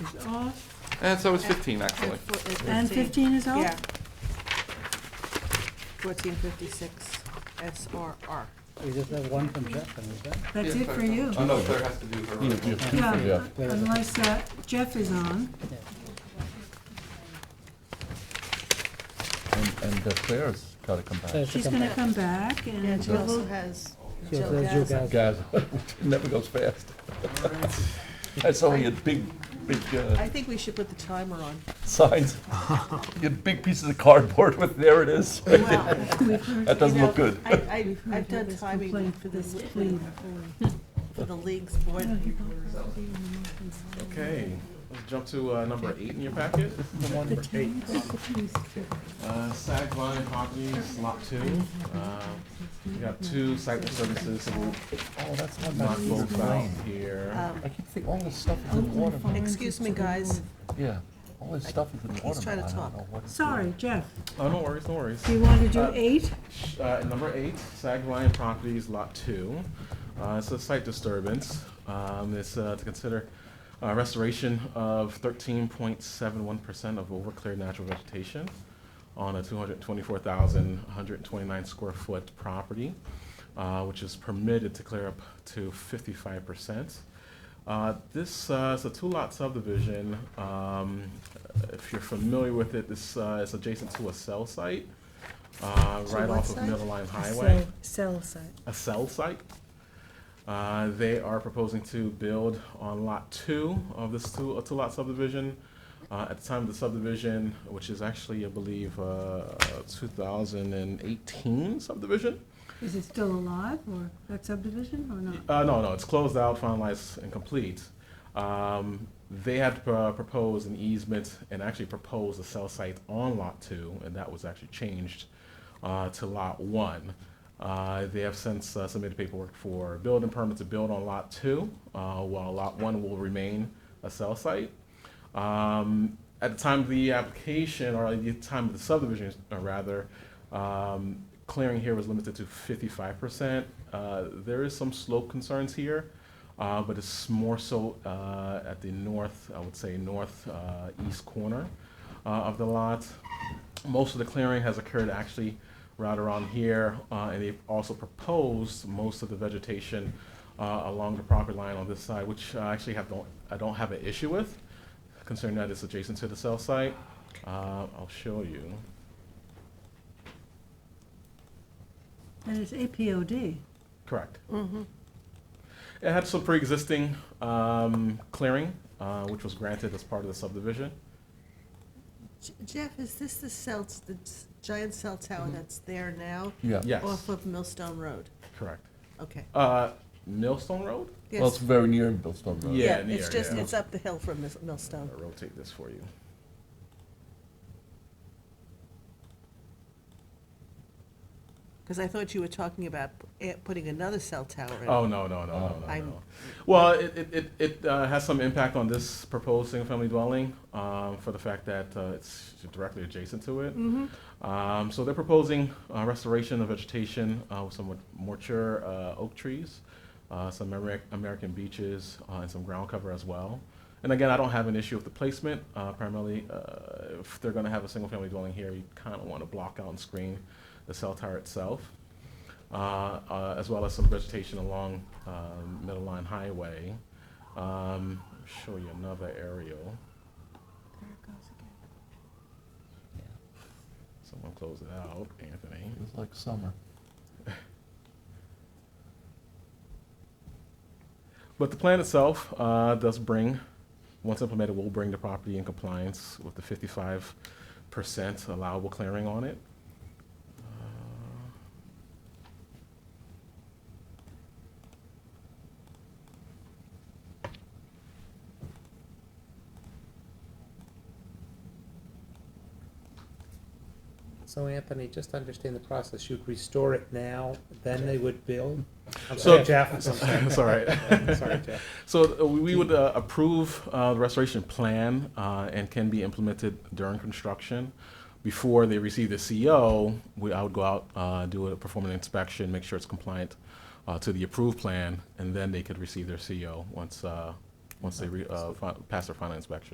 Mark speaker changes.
Speaker 1: is off,
Speaker 2: And so is 15, actually.
Speaker 1: and fifteen is
Speaker 3: Yeah.
Speaker 1: off?
Speaker 3: Fourteen fifty-six SRR.
Speaker 4: We just have one from Jeff, and is that?
Speaker 1: That's
Speaker 2: Yeah,
Speaker 1: it for you.
Speaker 2: Oh, no, Claire has to do her.
Speaker 1: Yeah,
Speaker 4: Claire doesn't-
Speaker 1: unless uh, Jeff is on.
Speaker 5: And, and uh, Claire's gotta come
Speaker 4: Claire
Speaker 5: back.
Speaker 4: should
Speaker 1: She's
Speaker 4: come
Speaker 1: gonna
Speaker 4: back.
Speaker 1: come back and
Speaker 5: she also
Speaker 1: we'll,
Speaker 6: has.
Speaker 4: She
Speaker 6: Jill
Speaker 4: also has Jill Gaz.
Speaker 5: Guys, it never goes fast. That's only a big, big uh,
Speaker 3: I think we should put the timer on.
Speaker 5: signs, you had big pieces of cardboard with, there it is. That doesn't
Speaker 3: You know,
Speaker 5: look good.
Speaker 3: I, I, I've
Speaker 1: heard
Speaker 3: done
Speaker 1: this
Speaker 3: timing
Speaker 1: complaint
Speaker 3: for
Speaker 1: for
Speaker 3: this,
Speaker 1: this
Speaker 3: for the league's board.
Speaker 2: Okay, let's jump to uh, number eight in your packet.
Speaker 1: the town.
Speaker 2: Uh, Sag Vine Properties, Lot Two. Uh, We got two site services, so we'll
Speaker 5: Oh, that's one
Speaker 2: knock
Speaker 5: that
Speaker 2: both out here.
Speaker 3: Um,
Speaker 5: I keep thinking all this stuff is in water.
Speaker 3: Excuse me, guys.
Speaker 5: Yeah, all this stuff is in water.
Speaker 3: trying to
Speaker 5: I don't
Speaker 3: talk.
Speaker 5: know what it's doing.
Speaker 1: Sorry, Jeff,
Speaker 2: Oh, no worries, no worries.
Speaker 1: do you want to do
Speaker 2: Uh,
Speaker 1: eight?
Speaker 2: Uh, number eight, Sag Lion Properties, Lot Two. Uh, it's a site disturbance. Um, it's, uh, to consider, uh, restoration of thirteen point seven one percent of overcleared natural vegetation on a two hundred twenty-four thousand, one hundred twenty-nine square foot property, uh, which is permitted to clear up to fifty-five percent. Uh, This uh, is a two-lot subdivision. Um, If you're familiar with it, this uh, is adjacent to a cell site, uh, right
Speaker 3: what
Speaker 2: off of
Speaker 3: site?
Speaker 2: Middle Line Highway.
Speaker 6: Cell site.
Speaker 2: A cell site. Uh, They are proposing to build on Lot 2 of this two- uh, two-lot subdivision. Uh, At the time of the subdivision, which is actually, I believe, uh, 2018 subdivision,
Speaker 1: Is it still alive or that subdivision or not?
Speaker 2: Uh, no, no, it's closed out, finalized, and complete. Um, they had uh, proposed an easement and actually proposed a cell site on lot two, and that was actually changed uh, to lot one. Uh, they have since uh, submitted paperwork for building permit to build on lot two, uh, while lot one will remain a cell site. Um, at the time of the application, or at the time of the subdivision, uh, rather, um, clearing here was limited to fifty-five percent. Uh, there is some slope concerns here, uh, but it's more so, uh, at the north, I would say, north, uh, east corner, uh, of the lot. Most of the clearing has occurred actually right around here, uh, and they've also proposed most of the vegetation, uh, along the property line on this side, which I actually have, don't, I don't have an issue with considering that it's adjacent to the cell site. Uh, I'll show you.
Speaker 1: And it's APOD.
Speaker 2: Correct. It had some pre-existing um, clearing, uh, which was granted as part of the subdivision.
Speaker 3: J- Jeff, is this the cell, the giant cell tower
Speaker 1: Mm-hmm.
Speaker 3: that's there now?
Speaker 5: Yeah.
Speaker 2: Yes,
Speaker 3: Off of Millstone Road?
Speaker 2: correct.
Speaker 3: Okay.
Speaker 2: Uh, Millstone Road?
Speaker 5: Well, it's
Speaker 3: Yes.
Speaker 5: very near Billstone Road.
Speaker 2: Yeah,
Speaker 3: It's
Speaker 2: near,
Speaker 3: just,
Speaker 2: yeah.
Speaker 3: it's up the hill from Mis- Millstone.
Speaker 2: I'll rotate this for you.
Speaker 3: Because I thought you were talking about eh, putting another cell tower in.
Speaker 2: Oh, no, no, no, no, no,
Speaker 3: I'm-
Speaker 2: no. Well, it, it, it, it uh, has some impact on this proposed single-family dwelling, um, for the fact that, uh, it's directly adjacent to it. Um, so they're proposing, uh, restoration of vegetation, uh, with some mature, uh, oak trees, uh, some Ameri- American beeches, uh, and some ground cover as well. And again, I don't have an issue with the placement, uh, primarily, uh, if they're gonna have a single-family dwelling here, you kinda wanna block out and screen the cell tower itself uh, uh, as well as some vegetation along um, Middle Line Highway. Um, Show you another aerial. Someone close it out, Anthony.
Speaker 5: It was like summer.
Speaker 2: But the plan itself uh, does bring, once implemented, will bring the property in compliance with the fifty-five percent allowable clearing on it.
Speaker 7: So Anthony, just to understand the process, you'd restore it now, then they would build? I'm
Speaker 2: So-
Speaker 7: sorry, Jeff, I'm sorry.
Speaker 2: It's all right.
Speaker 7: Sorry, Jeff.
Speaker 2: So uh, we we would uh, approve uh, the restoration plan uh, and can be implemented during construction. Before they receive the CO, we, I would go out, uh, do a, perform an inspection, make sure it's compliant uh, to the approved E plan, and then they could receive their CO once, uh, once they re- uh, fi- pass their final inspection.